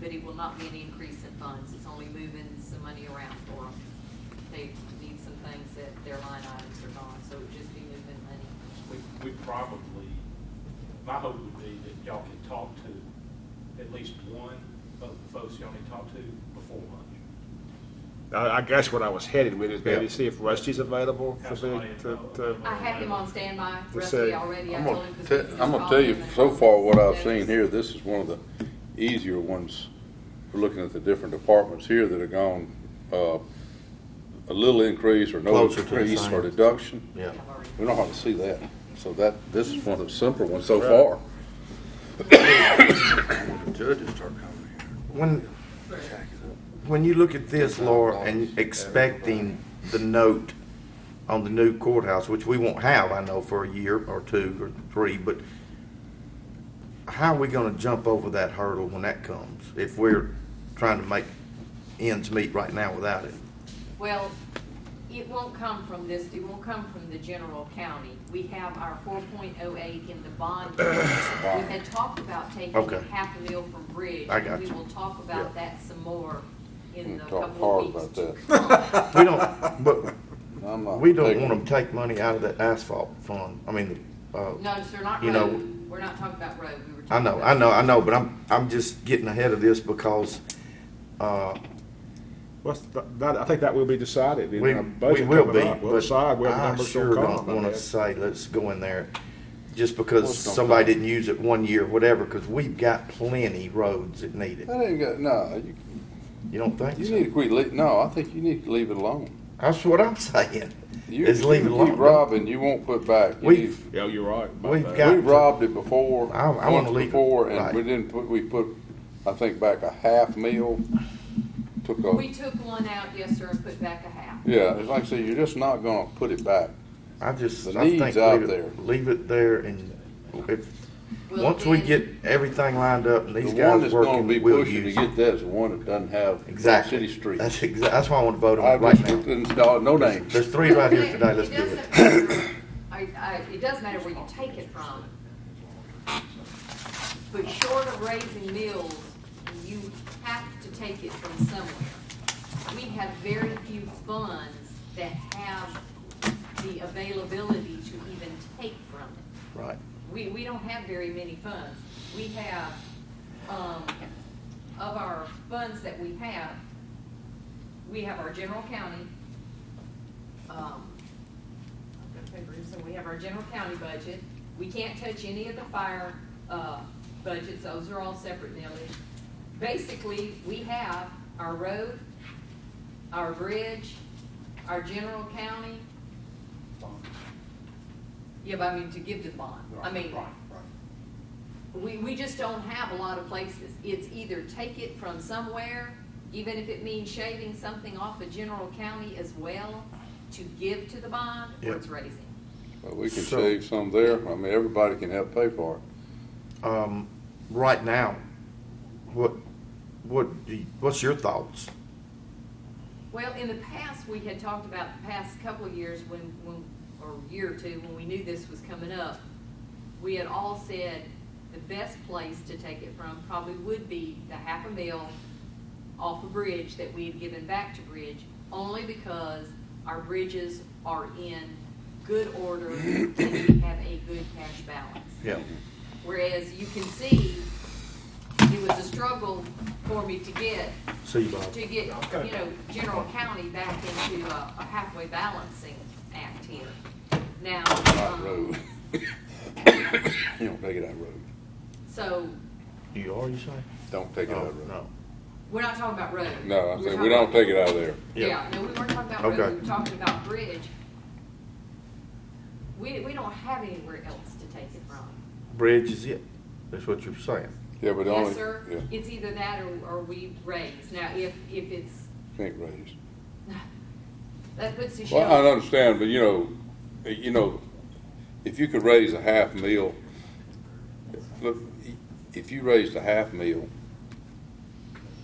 but it will not be an increase in funds. It's only moving some money around for them. They need some things that their line items are gone, so it would just be moving money. We, we probably, my hope would be that y'all can talk to at least one of the folks y'all need to talk to before lunch. I, I guess what I was headed with is maybe Yeah. see if Rusty's available for Have somebody me to, to. available. I have him on standby, To Rusty say, already, I I'm told gonna him. 'cause Te- we I'm just gonna tell called you, him and so told far, him what I've that seen here, this is one of the easier ones, We're looking at the different departments here that have gone, uh, a little increase or no Closer to the increase same. or deduction. Yeah. I've already- We don't hardly see that, so that, this is one of the simpler ones so Right. far. Judges start coming When, here, jack it up. when you look at this, Laura, and expecting the note on the new courthouse, which we won't have, I know, for a year or two or three, but how are we gonna jump over that hurdle when that comes, if we're trying to make ends meet right now without it? Well, it won't come from this, it won't come from the general county. We have our four point oh eight in the bond. We had talked about taking Okay. half a mil from Bridge. I got and We you. will talk Yeah. about that some more in We'll the talk couple of hard weeks about to come. We don't, but I'm not we don't taking- wanna take money out of that asphalt fund, I mean, uh. No, sir, not You know- road, we're not talking about road, we were I talking know, about. I know, I know, but I'm, I'm just getting ahead of this because, uh, Well, that- that, I think that will be decided in we, our we budget will coming be, up. We'll but decide where the I numbers sure will don't come. I mean, wanna say, let's go in there just because Let's don't somebody go. didn't use it one year, whatever, cause we've got plenty roads that need it. That ain't got, no, you, You don't think you so? need to quit, lea- no, I think you need to leave it alone. That's what I'm saying, You, is leave you it alone. keep robbing, you won't put back. You We've- need- Yeah, you're right. My We've bad. got- We to- robbed it before, I- I wanna once leave it, before, and right. we didn't put, we put, I think, back a half meal, took a, We took one out, yes, sir, and put back a half. yeah, it's like I said, you're just not gonna put it back. I just, The I think, need's out leave there. it, leave it there and if, Well, once we then- get everything lined up and The these one guys that's gonna working, be we'll pushing to use. it. get that is the one that doesn't have Exactly. city street. That's exa, that's why I want to vote on I it right just, now. no, no names. There's three right here It- today, let's it do it. doesn't matter- I, I, it does matter where you take it from. But short of raising mills, you have to take it from somewhere. We have very few funds that have the availability to even take from it. Right. We, we don't have very many funds. We have, um, of our funds that we have, we have our general county, um, I've got papers, so we have our general county budget. We can't touch any of the fire, uh, budgets, those are all separate now. Basically, we have our road, our bridge, our general county. Yeah, but I mean, to give to the bond, I mean, we, we just don't have a lot of places. It's either take it from somewhere, even if it means shaving something off of general county as well, to give to the bond, or it's raising. But we can So- save some there, I mean, everybody can help pay for it. Um, right now, what, what, do you- what's your thoughts? Well, in the past, we had talked about the past couple of years when, when, or year or two, when we knew this was coming up, we had all said the best place to take it from probably would be the half a mil off a bridge that we had given back to Bridge, only because our bridges are in good order and we have a good cash balance. Yeah. Whereas you can see, it was a struggle for me to get See you, Bob. to get, you know, general county back into a a halfway balancing act here. Now, Not um, road. You don't take it out road, so, You are, you say? don't take it out Oh, road. no. we're not talking about road. No, We're I'm saying, talking we don't about- take it out of there. Yeah. Yeah, no, we weren't talking about Okay. road, we were talking about bridge. We, we don't have anywhere else to take it from. Bridge is it, that's what you're saying. Yeah, but the only. Yes, sir, yeah, it's either that or, or we raise. Now, if, if it's, Can't raise. that puts a Well, I shelf, understand, but you know, eh, you know, if you could raise a half meal, look, if you raised a half meal,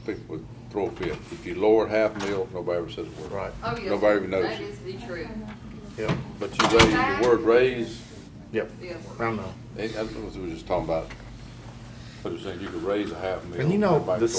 people would throw a fit. If you lowered half meal, nobody ever says a word. Right. oh, yes. Nobody sir, even knows. That is the truth, Yep, But you raise, the word raise, yep, yes. I know. eh, I was, we were just talking about, but it was saying you could raise a half meal. And you know, nobody the throw a